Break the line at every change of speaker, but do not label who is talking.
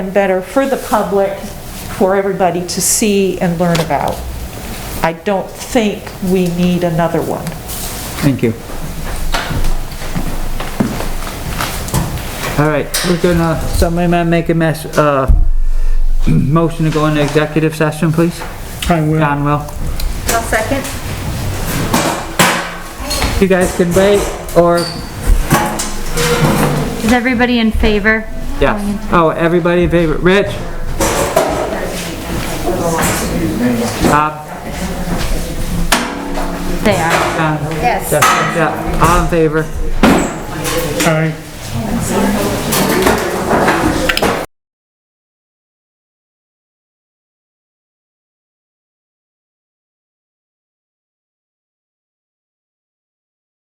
and better for the public, for everybody to see and learn about. I don't think we need another one.
Thank you. All right, we're gonna, somebody might make a mess, uh, motion to go into executive session, please?
I will.
John will.
I'll second.
You guys can wait, or,
Is everybody in favor?
yes. Oh, everybody in favor, Rich? Bob?
They are.
John?
Yes.
Yeah, all in favor?
Aye.